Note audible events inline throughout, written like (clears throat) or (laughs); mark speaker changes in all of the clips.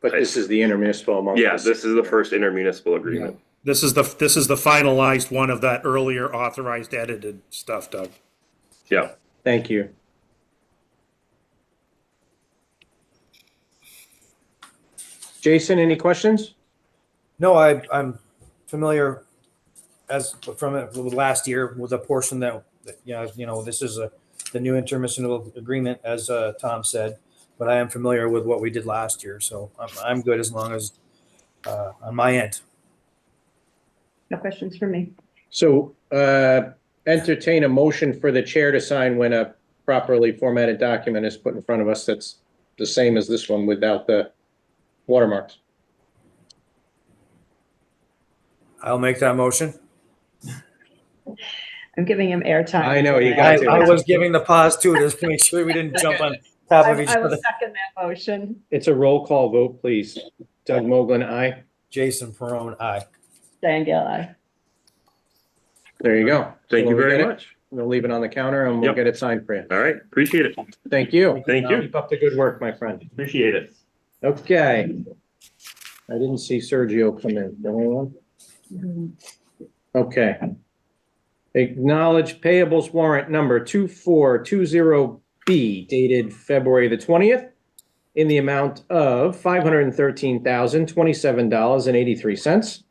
Speaker 1: But this is the intermunicipal among.
Speaker 2: Yeah, this is the first intermunicipal agreement.
Speaker 3: This is the, this is the finalized one of that earlier authorized edited stuff, Doug.
Speaker 2: Yeah.
Speaker 1: Thank you. Jason, any questions?
Speaker 4: No, I, I'm familiar as from it with last year with a portion that, that, you know, you know, this is a, the new intermunicipal agreement, as, uh, Tom said. But I am familiar with what we did last year, so I'm, I'm good as long as, uh, on my end.
Speaker 5: No questions for me.
Speaker 1: So uh, entertain a motion for the chair to sign when a properly formatted document is put in front of us that's the same as this one without the watermarks.
Speaker 4: I'll make that motion.
Speaker 5: I'm giving him airtime.
Speaker 1: I know, you
Speaker 4: I,
Speaker 1: got to.
Speaker 4: I was giving the pause too, just to make sure we didn't jump on top
Speaker 5: I
Speaker 4: of each
Speaker 5: I will (laughs)
Speaker 4: other.
Speaker 5: second that motion.
Speaker 1: It's a roll call vote, please. Doug Moglen, aye.
Speaker 4: Jason Perone, aye.
Speaker 5: Diane Gale, aye.
Speaker 1: There you go.
Speaker 2: Thank you
Speaker 1: We'll get
Speaker 2: very
Speaker 1: it-
Speaker 2: much.
Speaker 1: We'll leave it on the counter and we'll
Speaker 2: Yep.
Speaker 1: get it signed for you.
Speaker 2: All right. Appreciate it.
Speaker 1: Thank you.
Speaker 2: Thank you.
Speaker 1: Keep up the good work, my friend.
Speaker 2: Appreciate it.
Speaker 1: Okay. I didn't see Sergio come in. Did anyone?
Speaker 5: Mm-hmm.
Speaker 1: Okay. Acknowledge payables warrant number 2420B dated February the 20th in the amount of $513,027.83.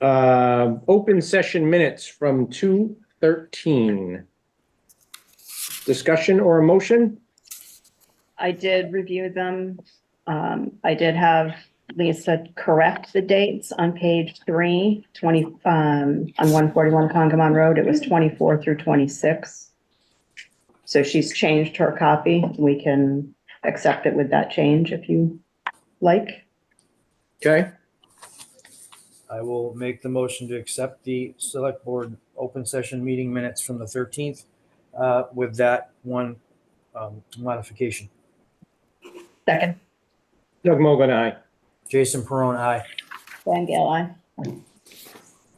Speaker 1: Um, Open session minutes from 2:13. Discussion or a motion?
Speaker 5: I did review them. Um, I did have Lisa correct the dates on page three, twenty, um, on one forty-one Congamon Road. It was twenty-four through twenty-six. So she's changed her copy. We can accept it with that change if you like.
Speaker 1: Okay.
Speaker 4: I will make the motion to accept the select board open session meeting minutes from the thirteenth uh, with that one um, modification.
Speaker 5: Second,
Speaker 1: Doug Mogul, aye.
Speaker 4: Jason Perone, aye.
Speaker 5: Diane Gale, aye.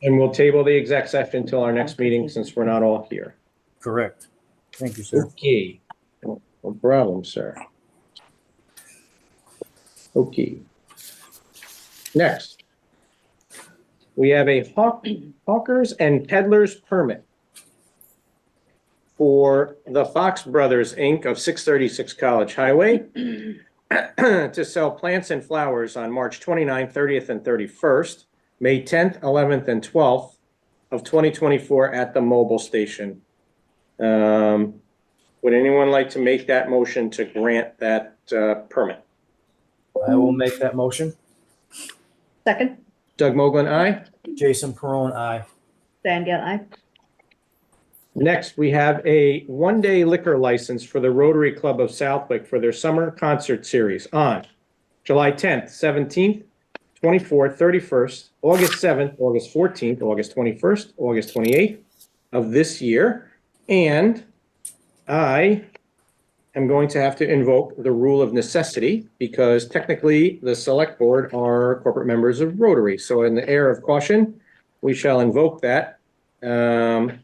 Speaker 1: And we'll table the exec session until our next meeting since we're not all here.
Speaker 4: Correct. Thank you, sir.
Speaker 1: Okay. No problem, sir. Okay. Next. We have a hawk, hawkers and peddlers permit for the Fox Brothers, Inc. of 636 College Highway (clears throat) to sell plants and flowers on March 29th, 30th, and 31st, May 10th, 11th, and 12th of 2024 at the mobile station. Um, would anyone like to make that motion to grant that uh, permit?
Speaker 4: I will make that motion.
Speaker 5: Second,
Speaker 1: Doug Moglen, aye.
Speaker 4: Jason Perone, aye.
Speaker 5: Diane Gale, aye.
Speaker 1: Next, we have a one-day liquor license for the Rotary Club of Southwick for their summer concert series on July 10th, 17th, 24th, 31st, August 7th, August 14th, August 21st, August 28th of this year. And I am going to have to invoke the rule of necessity because technically the select board are corporate members of Rotary. So in the air of caution, we shall invoke that. Um,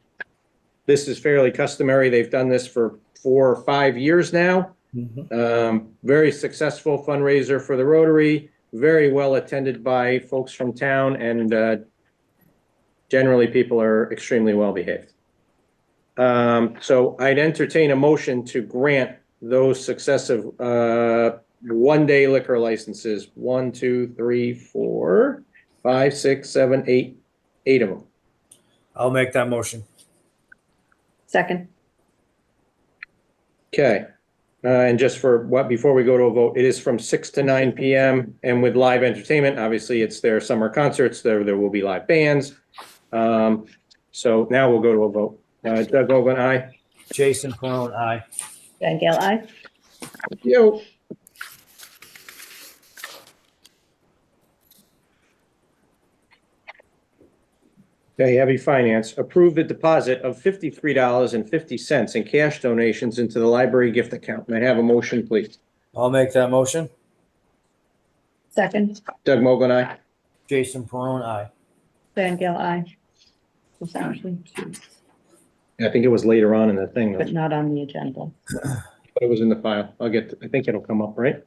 Speaker 1: this is fairly customary. They've done this for four or five years now. Um, very successful fundraiser for the Rotary, very well attended by folks from town and, uh, generally people are extremely well behaved. Um, so I'd entertain a motion to grant those successive, uh, one-day liquor licenses, one, two, three, four, five, six, seven, eight, eight of them.
Speaker 4: I'll make that motion.
Speaker 5: Second,
Speaker 1: Okay, uh, and just for what, before we go to a vote, it is from six to nine PM and with live entertainment, obviously it's their summer concerts, there, there will be live bands. Um, so now we'll go to a vote. Uh, Doug Mogul, aye.
Speaker 4: Jason Perone, aye.
Speaker 5: Diane Gale, aye.
Speaker 1: Yo. Okay, heavy finance, approve the deposit of fifty-three dollars and fifty cents in cash donations into the library gift account. May I have a motion, please?
Speaker 4: I'll make that motion.
Speaker 5: Second,
Speaker 1: Doug Mogul, aye.
Speaker 4: Jason Perone, aye.
Speaker 5: Diane Gale, aye. It's actually two,
Speaker 1: I think it was later on in the thing,
Speaker 5: But
Speaker 1: but
Speaker 5: not on the agenda.
Speaker 1: it was in the file. I'll get, I think it'll come up, right?